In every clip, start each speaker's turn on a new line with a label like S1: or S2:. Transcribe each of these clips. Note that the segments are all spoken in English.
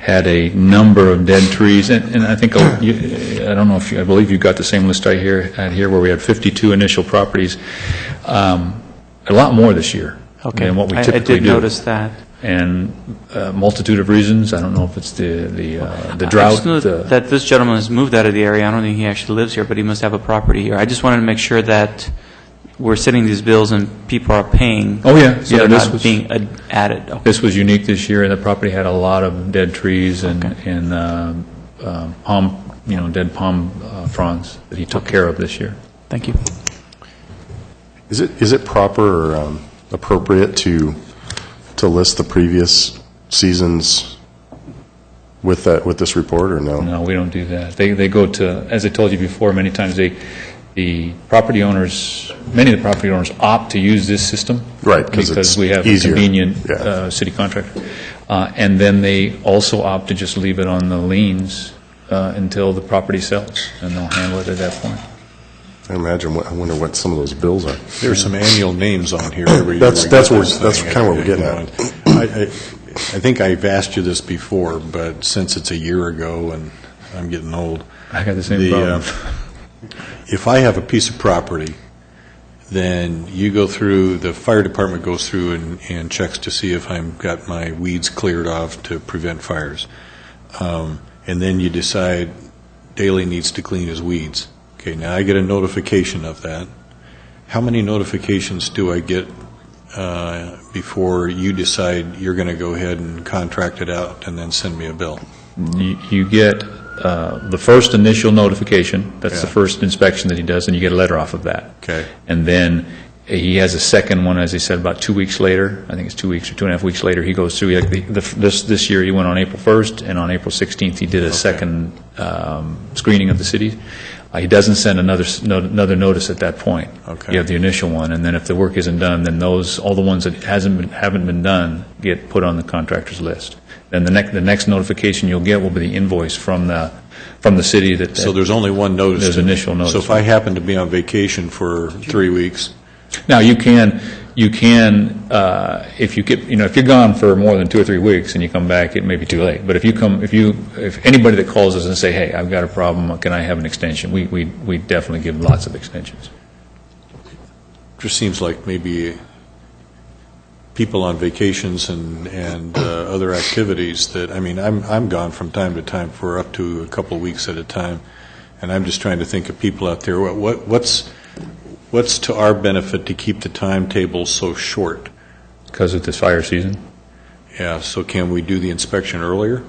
S1: had a number of dead trees, and and I think, uh, you- I don't know if, you I believe you got the same list I hear, had here, where we had 52 initial properties, Um, a lot more this year
S2: Okay.
S1: than what we
S2: I-
S1: typically do.
S2: I did notice that.
S1: And a multitude of reasons, I don't know if it's the the uh, the
S2: I
S1: drought,
S2: just know
S1: the-
S2: that this gentleman has moved out of the area. I don't think he actually lives here, but he must have a property here. I just wanted to make sure that we're sending these bills and people are paying.
S1: Oh, yeah,
S2: So
S1: yeah,
S2: they're
S1: this
S2: not
S1: was-
S2: being ad- added. Okay.
S1: This was unique this year, and the property had a lot of dead trees and,
S2: Okay.
S1: and um, um, palm, you know, dead palm uh, fronds that he took care of this year.
S2: Thank you.
S3: Is it, is it proper or um, appropriate to, to list the previous seasons with that, with this report, or no?
S1: No, we don't do that. They, they go to, as I told you before, many times, they, the property owners, many of the property owners opt to use this system.
S3: Right, 'cause
S1: Because
S3: it's
S1: we have a
S3: easier.
S1: convenient
S3: Yeah.
S1: uh, city contractor. Uh, And then they also opt to just leave it on the liens uh, until the property sells, and they'll handle it at that point.
S3: I imagine, what- I wonder what some of those bills are.
S4: There's some annual names on here every year.
S3: That's-
S4: We
S3: that's
S4: get
S3: what-
S4: this
S3: that's
S4: thing
S3: kinda what we're
S4: every
S3: getting
S4: now and- I, I I think I've asked you this before, but since it's a year ago and I'm getting old.
S1: I got the same
S4: uh,
S1: problem.
S4: If I have a piece of property, then you go through, the fire department goes through and, and checks to see if I'm, got my weeds cleared off to prevent fires. Um, And then you decide Daley needs to clean his weeds. Okay, now I get a notification of that. How many notifications do I get uh, before you decide you're going to go ahead and contract it out and then send me a bill?
S1: You you get uh, the first initial notification, that's the
S4: Yeah.
S1: first inspection that he does, and you get a letter off of that.
S4: Okay.
S1: And then uh, he has a second one, as he said, about two weeks later, I think it's two weeks or two and a half weeks later, he goes through, like, the- the- this this year, he went on April 1st, and on April 16th, he did a second um, screening of the city. Uh, He doesn't send another s- no- another notice at that point.
S4: Okay.
S1: You have the initial one, and then if the work isn't done, then those, all the ones that hasn't been, haven't been done get put on the contractor's list. Then the next, the next notification you'll get will be the invoice from the, from the city that.
S4: So there's only one notice.
S1: There's initial notice.
S4: So if I happen to be on vacation for three weeks,
S1: Now, you can, you can, uh, if you get, you know, if you're gone for more than two or three weeks and you come back, it may be too late. But if you come, if you, if anybody that calls us and say, hey, I've got a problem, can I have an extension? We, we, we definitely give lots of extensions.
S4: just seems like maybe people on vacations and, and uh, other activities that, I mean, I'm, I'm gone from time to time for up to a couple of weeks at a time, and I'm just trying to think of people out there, What- what, what's, what's to our benefit to keep the timetable so short?
S1: Because of this fire season?
S4: Yeah, so can we do the inspection earlier?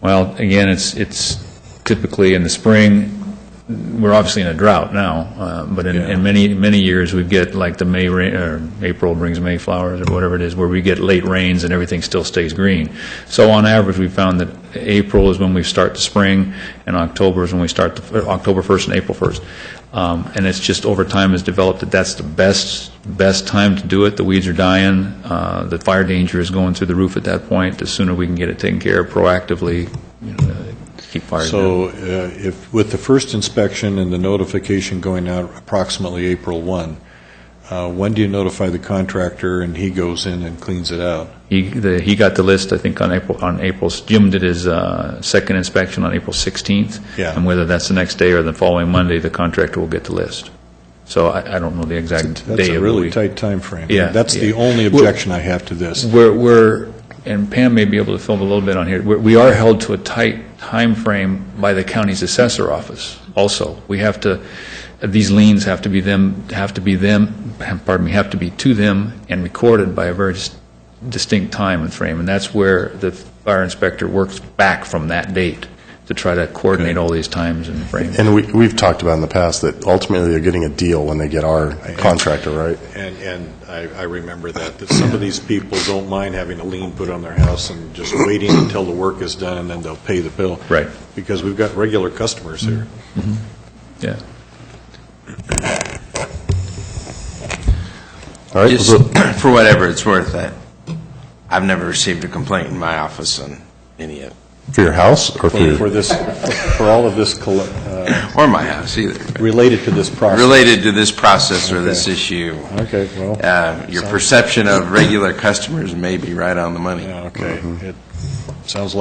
S1: Well, again, it's, it's typically in the spring, we're obviously in a drought now, uh, but in,
S4: Yeah.
S1: in many, many years, we get like the May, rain or April brings May flowers, or whatever it is, where we get late rains and everything still stays green. So on average, we found that April is when we start the spring, and October is when we start, the uh, October 1st and April 1st. Um, And it's just over time has developed that that's the best, best time to do it. The weeds are dying, uh, the fire danger is going through the roof at that point. The sooner we can get it taken care of proactively, you know, uh, keep fires down.
S4: So uh, if, with the first inspection and the notification going out approximately April 1, uh, when do you notify the contractor and he goes in and cleans it out?
S1: He, the, he got the list, I think, on April, on April, Jim did his uh, second inspection on April 16th.
S4: Yeah.
S1: And whether that's the next day or the following Monday, the contractor will get the list. So I, I don't know the exact day of the
S4: That's a really
S1: week.
S4: tight timeframe.
S1: Yeah,
S4: That's the
S1: yeah.
S4: only
S1: Well- Mm.
S4: objection I have to this.
S1: We're, we're, and Pam may be able to film a little bit on here, We're- we are held to a tight time frame by the county's assessor office also. We have to, these liens have to be them, have to be them, pardon me, have to be to them and recorded by a very dis- distinct time and frame, and that's where the fire inspector works back from that date to try to coordinate all these times and frames.
S3: And we, we've talked about in the past that ultimately they're getting a deal when they get our contractor, right?
S4: And, and I, I remember that, that some of these people don't mind having a lien put on their house and just waiting until the work is done and then they'll pay the bill.
S1: Right.
S4: Because we've got regular customers here.
S1: Yeah.
S3: All right,
S5: Just
S3: so-
S5: for whatever it's worth, I, I've never received a complaint in my office on any of,
S3: for your house or for
S1: Mm.
S4: For
S3: your,
S4: this, for all of this, colle- uh,
S5: or my house either,
S4: related to this process.
S5: related to this process or this
S4: Okay.
S5: issue.
S4: Okay, well.
S5: Uh, Your perception of regular customers may be right on the money.
S4: Yeah, okay. It sounds like